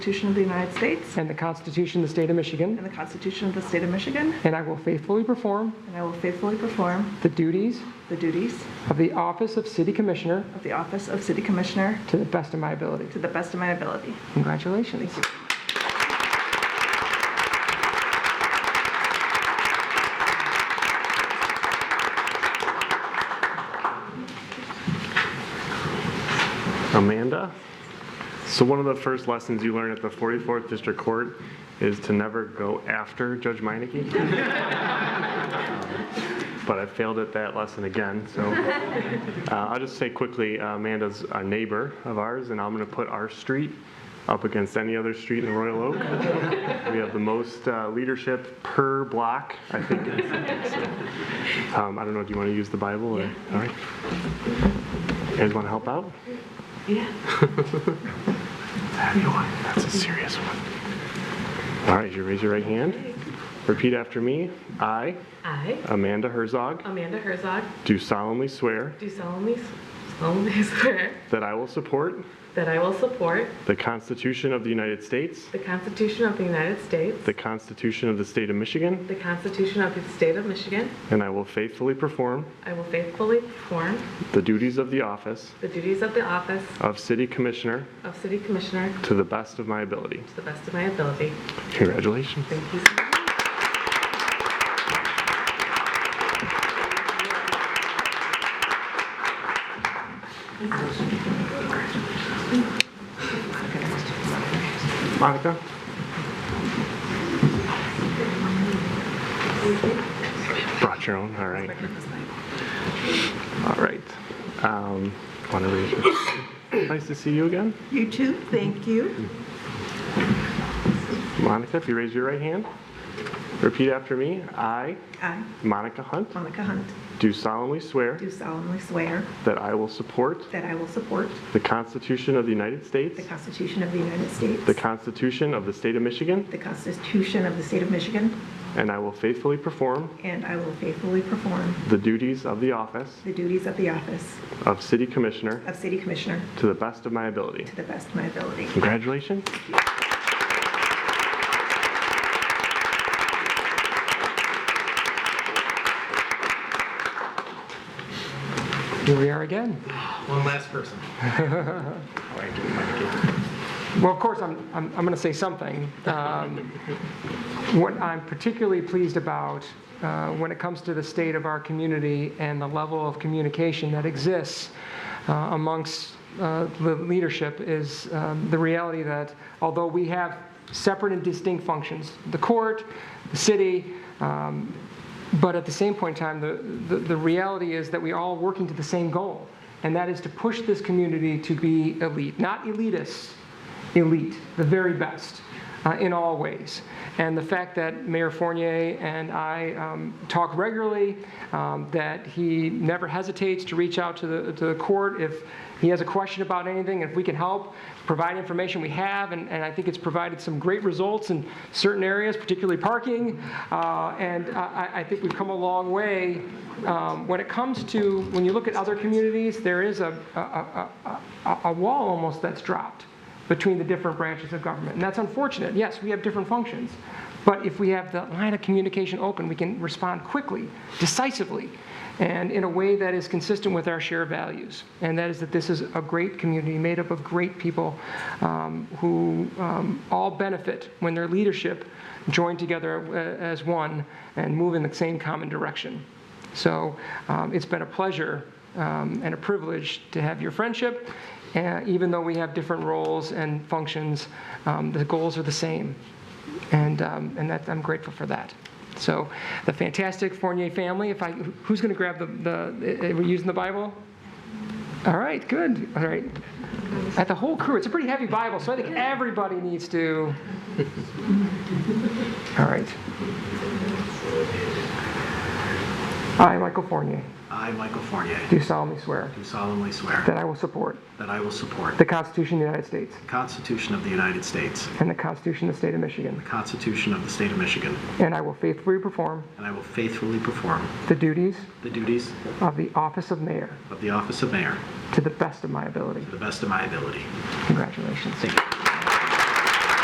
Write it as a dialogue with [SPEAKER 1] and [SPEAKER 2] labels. [SPEAKER 1] Constitution of the United States
[SPEAKER 2] and the Constitution of the State of Michigan,
[SPEAKER 1] and the Constitution of the State of Michigan,
[SPEAKER 2] and I will faithfully perform
[SPEAKER 1] and I will faithfully perform
[SPEAKER 2] the duties
[SPEAKER 1] the duties
[SPEAKER 2] of the Office of City Commissioner
[SPEAKER 1] of the Office of City Commissioner
[SPEAKER 2] to the best of my ability.
[SPEAKER 1] to the best of my ability.
[SPEAKER 2] Congratulations.
[SPEAKER 3] Amanda. So one of the first lessons you learn at the 44th District Court is to never go after Judge Meineke. Um, But I failed at that lesson again, so uh, I'll just say quickly, uh, Amanda's a neighbor of ours, and I'm going to put our street up against any other street in Royal Oak. We have the most uh, leadership per block, I think. So, um, I don't know, do you want to use the Bible? or- All right. You guys want to help out? Heavy one. That's a serious one. All right, you raise your right hand. Repeat after me. I,
[SPEAKER 4] I,
[SPEAKER 3] Amanda Herzog,
[SPEAKER 4] Amanda Herzog,
[SPEAKER 3] do solemnly swear
[SPEAKER 4] do solemnly, solemnly swear
[SPEAKER 3] that I will support
[SPEAKER 4] that I will support
[SPEAKER 3] the Constitution of the United States,
[SPEAKER 4] the Constitution of the United States,
[SPEAKER 3] the Constitution of the State of Michigan,
[SPEAKER 4] the Constitution of the State of Michigan.
[SPEAKER 3] and I will faithfully perform
[SPEAKER 4] I will faithfully perform
[SPEAKER 3] the duties of the office
[SPEAKER 4] the duties of the office
[SPEAKER 3] of City Commissioner
[SPEAKER 4] of City Commissioner
[SPEAKER 3] to the best of my ability.
[SPEAKER 4] to the best of my ability.
[SPEAKER 3] Congratulations.
[SPEAKER 4] Thank you so much.
[SPEAKER 3] Monica? Brought your own, all right. All right. Um, wanna raise your- Nice to see you again.
[SPEAKER 5] You too, thank you.
[SPEAKER 3] Monica, if you raise your right hand, repeat after me. I,
[SPEAKER 5] I,
[SPEAKER 3] Monica Hunt,
[SPEAKER 5] Monica Hunt,
[SPEAKER 3] do solemnly swear
[SPEAKER 5] do solemnly swear
[SPEAKER 3] that I will support
[SPEAKER 5] that I will support
[SPEAKER 3] the Constitution of the United States,
[SPEAKER 5] the Constitution of the United States,
[SPEAKER 3] the Constitution of the State of Michigan,
[SPEAKER 5] the Constitution of the State of Michigan,
[SPEAKER 3] and I will faithfully perform
[SPEAKER 5] and I will faithfully perform
[SPEAKER 3] the duties of the office
[SPEAKER 5] the duties of the office
[SPEAKER 3] of City Commissioner
[SPEAKER 5] of City Commissioner
[SPEAKER 3] to the best of my ability.
[SPEAKER 5] to the best of my ability.
[SPEAKER 3] Congratulations.
[SPEAKER 2] Here we are again.
[SPEAKER 6] One last person.
[SPEAKER 2] Well, of course, I'm, I'm, I'm going to say something. Um, What I'm particularly pleased about uh, when it comes to the state of our community and the level of communication that exists uh, amongst uh, the leadership is um, the reality that although we have separate and distinct functions, the court, the city, um, but at the same point in time, the, the, the reality is that we all working to the same goal, and that is to push this community to be elite, not elitists, elite, the very best uh, in all ways. And the fact that Mayor Fournier and I um, talk regularly, um, that he never hesitates to reach out to the, to the court if he has a question about anything, if we can help, provide information we have, and, and I think it's provided some great results in certain areas, particularly parking. Uh, and I, I- I think we've come a long way. Um, when it comes to, when you look at other communities, there is a, a, a, a, a wall almost that's dropped between the different branches of government. And that's unfortunate. Yes, we have different functions. But if we have the line of communication open, we can respond quickly, decisively, and in a way that is consistent with our shared values. And that is that this is a great community made up of great people um, who um, all benefit when their leadership join together uh, as one and move in the same common direction. So um, it's been a pleasure um, and a privilege to have your friendship. And even though we have different roles and functions, um, the goals are the same. And, um, and that, I'm grateful for that. So the fantastic Fournier family, if I, who's going to grab the, the, are we using the Bible? All right, good. All right. At the whole crew, it's a pretty heavy Bible, so I think everybody needs to. All right. I, Michael Fournier,
[SPEAKER 6] I, Michael Fournier,
[SPEAKER 2] do solemnly swear
[SPEAKER 6] do solemnly swear
[SPEAKER 2] that I will support
[SPEAKER 6] that I will support
[SPEAKER 2] the Constitution of the United States
[SPEAKER 6] the Constitution of the United States,
[SPEAKER 2] and the Constitution of the State of Michigan,
[SPEAKER 6] the Constitution of the State of Michigan,
[SPEAKER 2] and I will faithfully perform
[SPEAKER 6] and I will faithfully perform
[SPEAKER 2] the duties
[SPEAKER 6] the duties
[SPEAKER 2] of the office of mayor
[SPEAKER 6] of the office of mayor
[SPEAKER 2] to the best of my ability.
[SPEAKER 6] to the best of my ability.
[SPEAKER 2] Congratulations.
[SPEAKER 6] Thank you.